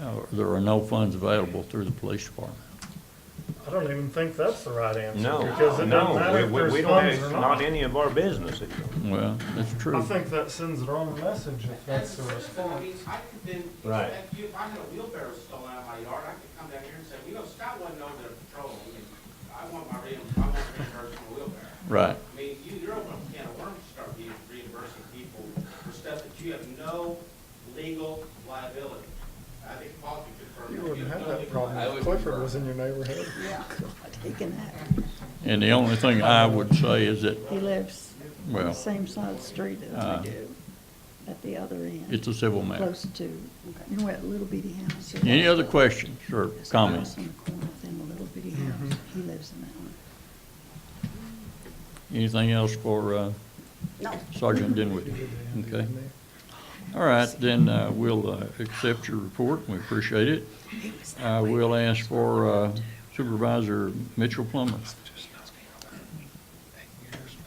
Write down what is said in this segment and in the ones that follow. uh, there are no funds available through the police department. I don't even think that's the right answer. Because No, it doesn't no, matter we, if we- there's we don't, funds it's or not not. any of our business. Well, that's I true. think that sends the wrong message if that's the I response. mean, I could then, Right. if you, if I had a wheelbarrow stolen out of my yard, I could come down here and say, you know, Scott wasn't over there patrolling, and I want my reim, I want reimbursement for wheelbarrow. Right, I mean, you, you're opening a can of worms to start being reimbursing people for stuff that you have no legal liability. I think Paul could confirm. You that. wouldn't have no that legal problem liability. if Clifford was in your neighborhood. Taking that. and the only thing I would say is that, He lives well, same side of the street Uh, as we do, at the other end, it's a civil matter. close to, you know, that little bitty house. Any other questions or There's a comments? house on the corner of them, a little bitty house. He lives in that one. Anything else for uh, No. Sergeant Dinwiddie? Okay. All right, then uh, we'll uh, accept your report, we appreciate it. Uh, We'll ask for uh, Supervisor Mitchell Plummer.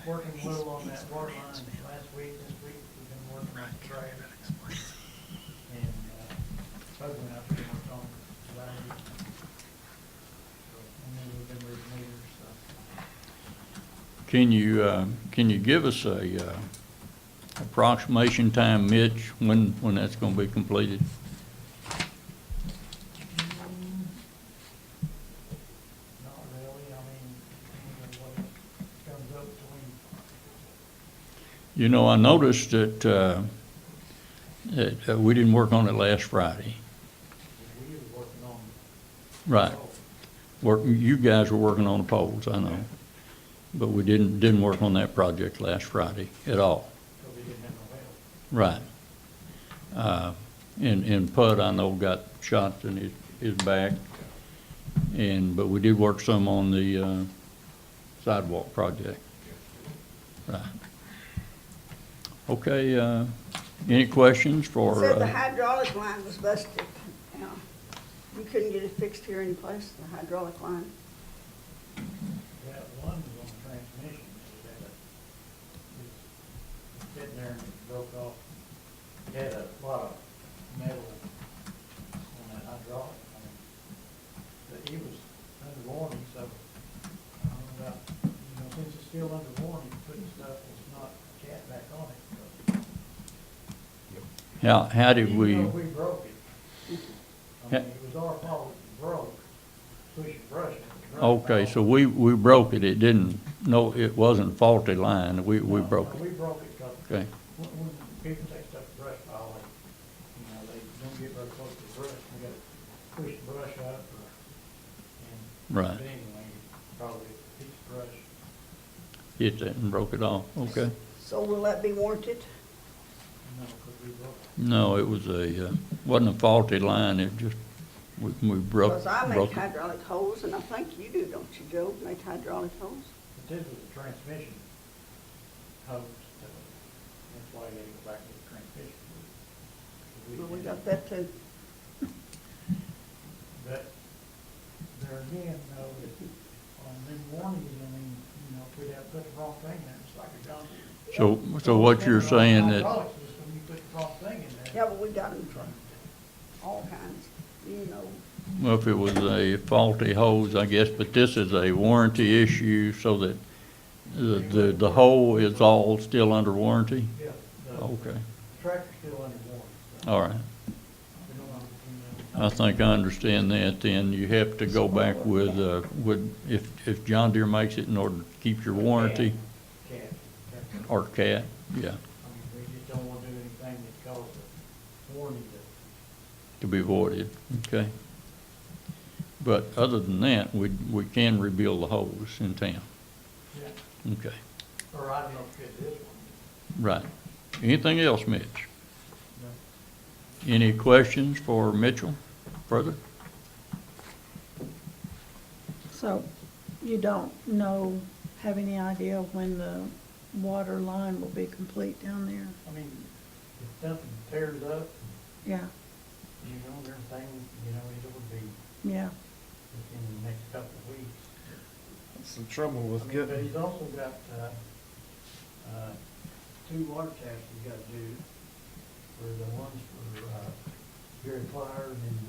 working a little on that water line last week, this week, we've been working on the trade. And, uh, supposedly I've been working on July. And then we've been reading meters, so. Can you, uh, can you give us a uh, approximation time, Mitch, when, when that's going to be completed? Not really, I mean, you know, what it comes up to when, You know, I noticed that, uh, that uh, we didn't work on it last Friday. we were working on. Right. Work, you guys were working on the poles, I know. But we didn't, didn't work on that project last Friday at all. Cause we didn't have no well. Right. Uh, And, and Pud, I know, got shot in his, his back. And, but we did work some on the uh, sidewalk project. Right. Okay, uh, any questions for? Said the uh, hydraulic line was busted. Yeah. You couldn't get it fixed here in place, the hydraulic line. That one was on transmission, so that it was sitting there and it broke off. It Had a lot of metal on that hydraulic. I mean, But he was under warning, so I don't know about, you know, since it's still under warning, putting stuff that's not cat back on it. so- How, how did we? Even though we broke it. I mean, Yeah. it was our fault, it broke, pushing, brushing. it broke Okay, off. so we, we broke it, it didn't, no, it wasn't faulty line, we, we No, broke no, it, We broke it, 'cause okay, When, when people take stuff to brush pile, they, you know, they don't get very close to the brush, they gotta push the brush up or, and. Right. But anyway, probably a piece of brush. hit that and broke it off, okay. So will that be warranted? No, because we broke it. No, it was a, uh, wasn't a faulty line, it just, we, we broke, Because I make broke it. hydraulic holes, and I think you do, don't you, Joe, make hydraulic holes? But this was a transmission hose, so that's why they go back to the transmission. 'Cause Well, we didn't- got that too. But there again, though, on them warnings, I mean, you know, if we'd have put the wrong thing in, it's like a dump. So, so what you're saying that, Hydraulics is when you put the wrong thing in Yeah, there. but we got them from all kinds, you know. well, if it was a faulty hose, I guess, but this is a warranty issue, so that the, the, the hole is all still under warranty? Yeah, the Okay, tractor's still under warranty, so all right, we don't want to, you know. I think I understand that, then you have to go back with, uh, with, if, if John Deere makes it in order to keep your warranty, Cat, cat, cat. Or cat, yeah, I mean, we just don't want to do anything that causes a warranty to, to be voided, okay? But other than that, we, we can rebuild the holes in town, yeah, okay, or I don't know if it's this one. right. Anything else, Mitch? No. Any questions for Mitchell further? So you don't know, have any idea when the water line will be complete down there? I mean, if something tears up, Yeah, you know, everything, you know, it would be yeah. within the next couple of weeks. It's the trouble with I mean, But he's also got, uh, uh, two water taps he's got to do, for the ones for, uh, Gary Flyer and then